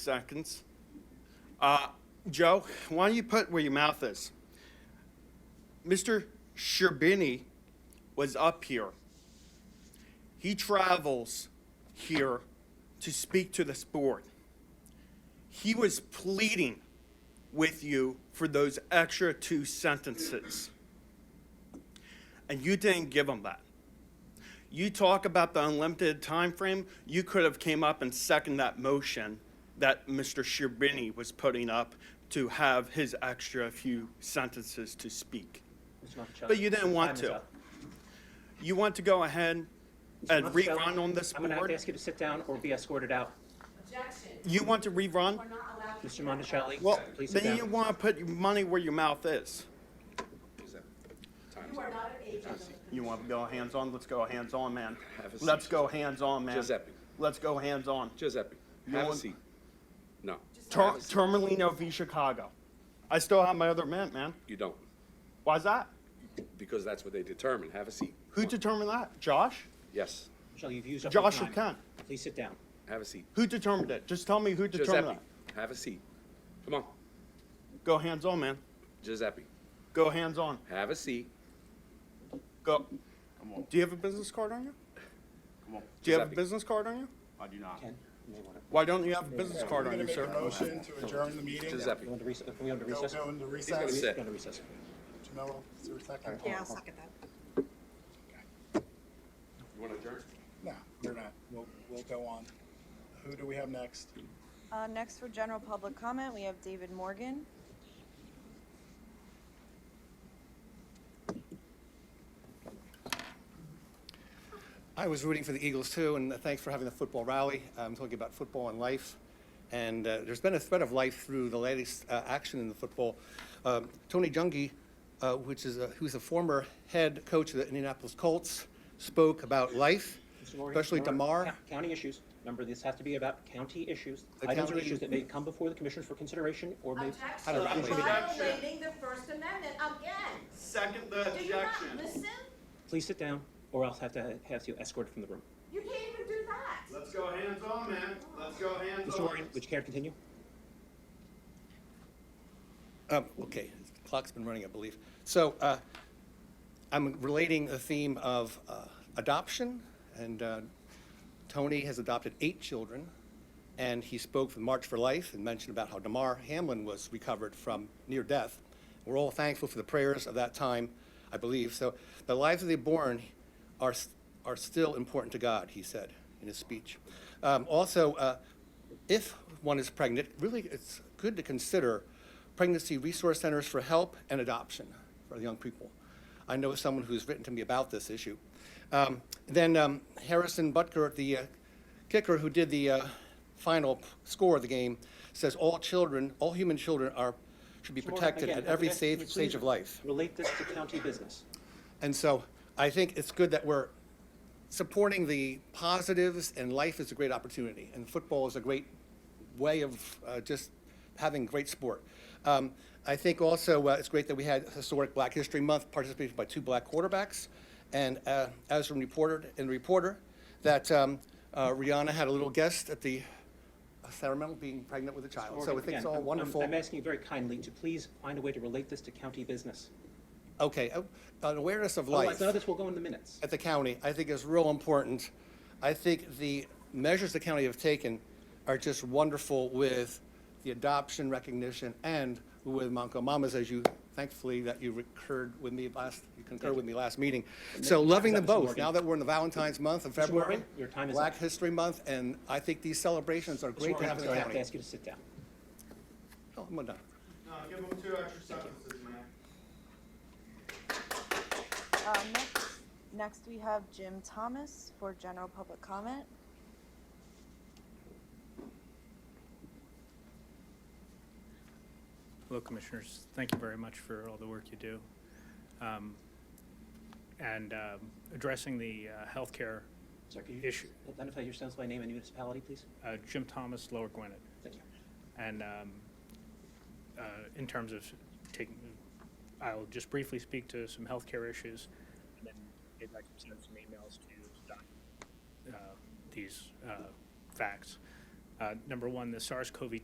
seconds. Uh, Joe, why don't you put where your mouth is? Mr. Sherbini was up here. He travels here to speak to this board. He was pleading with you for those extra two sentences. And you didn't give him that. You talk about the unlimited time frame. you could have came up and second that motion that Mr. Sherbini was putting up to have his extra few sentences to speak. Mr. Monticello. But you didn't want time is to. up. You want to go ahead and Monticello, rerun on this I'm gonna have to board? ask you to sit down or be escorted out. Objection. You want to rerun? We're not allowed to. Mr. Monticelli, Well, please sit then you down. want to put your money where your mouth is. You are not an agent of the You want to go hands-on? Let's go hands-on, man. Have a seat. Let's go hands-on, man. Giuseppe. Let's go hands-on. Giuseppe, You have a want- seat. No, Tur- Termalino v. Chicago. I still have my other mint, man. you don't, Why's that? because that's what they determine. Have a seat. Who determined that? Josh? Yes, Monticello, you've used up your Josh or time. Ken? Please sit down. have a seat. Who determined it? Just tell me who determined Giuseppe, that. have a seat. Come on, Go hands on, man. Giuseppe, Go hands on. have a seat. Go. Do you have a business card on you? Do you have a Giuseppe. business card on you? I do not. Ken, you may want to, Why don't you have a business card We're on gonna you, make a sir? motion to adjourn the meeting. Giuseppe, you want to recess, are we going to Go recess? go into gonna recess. sit. Going to recess. Jamil, is there a second? Yeah, I'll second that. you want to adjourn? No, we're not. We'll, we'll go on. Who do we have next? Uh, next for general public comment, we have David Morgan. I was rooting for the Eagles too, and thanks for having the football rally. I'm talking about football and life. And uh, there's been a thread of life through the latest uh, action in the football. Um, Tony Dungy, uh, which is a, who's a former head coach of the Indianapolis Colts, spoke about life, Mr. Morgan, especially remember, DeMar. co- County issues. Remember, this has to be about county issues. Items or county- issues that may come before the commissioners for consideration or may. I don't know. Objection. Violating the First Amendment again. Second the Do you not listen? Please sit down or else have to have you escorted from the room. You can't even do that. Let's go hands on, man. Let's go hands Mr. Morgan, would you care to continue? Um, okay, the clock's been running, I believe. So uh, I'm relating the theme of uh, adoption, and uh, Tony has adopted eight children, and he spoke for March for Life and mentioned about how Damar Hamlin was recovered from near death. We're all thankful for the prayers of that time, I believe. So the lives of the born are are still important to God, he said in his speech. Um, also, uh, if one is pregnant, really it's good to consider pregnancy resource centers for help and adoption for young people. I know someone who's written to me about this issue. Um, then um, Harrison Butker, the uh, kicker who did the uh, final p- score of the game, says all children, all human children, are should be Mr. Morgan, protected again, at every again, stage, would you stage of please life. Relate this to county business. And so I think it's good that we're supporting the positives, and life is a great opportunity, and football is a great way of uh, just having great sport. Um, I think also uh, it's great that we had historic Black History Month participated by two black quarterbacks, and uh, as from reported in the reporter, that um, uh, Rihanna had a little guest at the ceremony, being pregnant with a child. So I Morgan, think it's again, Um, all I'm- I'm- wonderful. I'm asking you very kindly to please find a way to relate this to county business. Okay, uh, an awareness of life. Otherwise, none of this will go in the minutes. at the county, I think is real important. I think the measures the county have taken are just wonderful with the adoption recognition and with Monco Mamas, as you, thankfully, that you recurred with me last, you concurred with me last meeting. So loving them Mr. Morgan. both, now that we're in the Valentine's month of February. Morgan, your time is Black up. History Month, and I think these celebrations are Mr. great to Morgan, I'm have in sorry, I the have to county. ask you to sit down. Oh, I'm done. No, give him two extra sentences, man. Uh, next, next we have Jim Thomas for general public comment. Hello, Commissioners. Thank you very much for all the work you do. Um, And um, addressing the uh, healthcare Sorry, could you issue, identify yourselves by name and municipality, please? uh, Jim Thomas, Lower Gwinnett. Thank you. And um, uh, in terms of taking, I'll just briefly speak to some healthcare issues, and then maybe I can send some emails to document uh, these uh, facts. Um, Uh, Number one, the SARS-CoV-2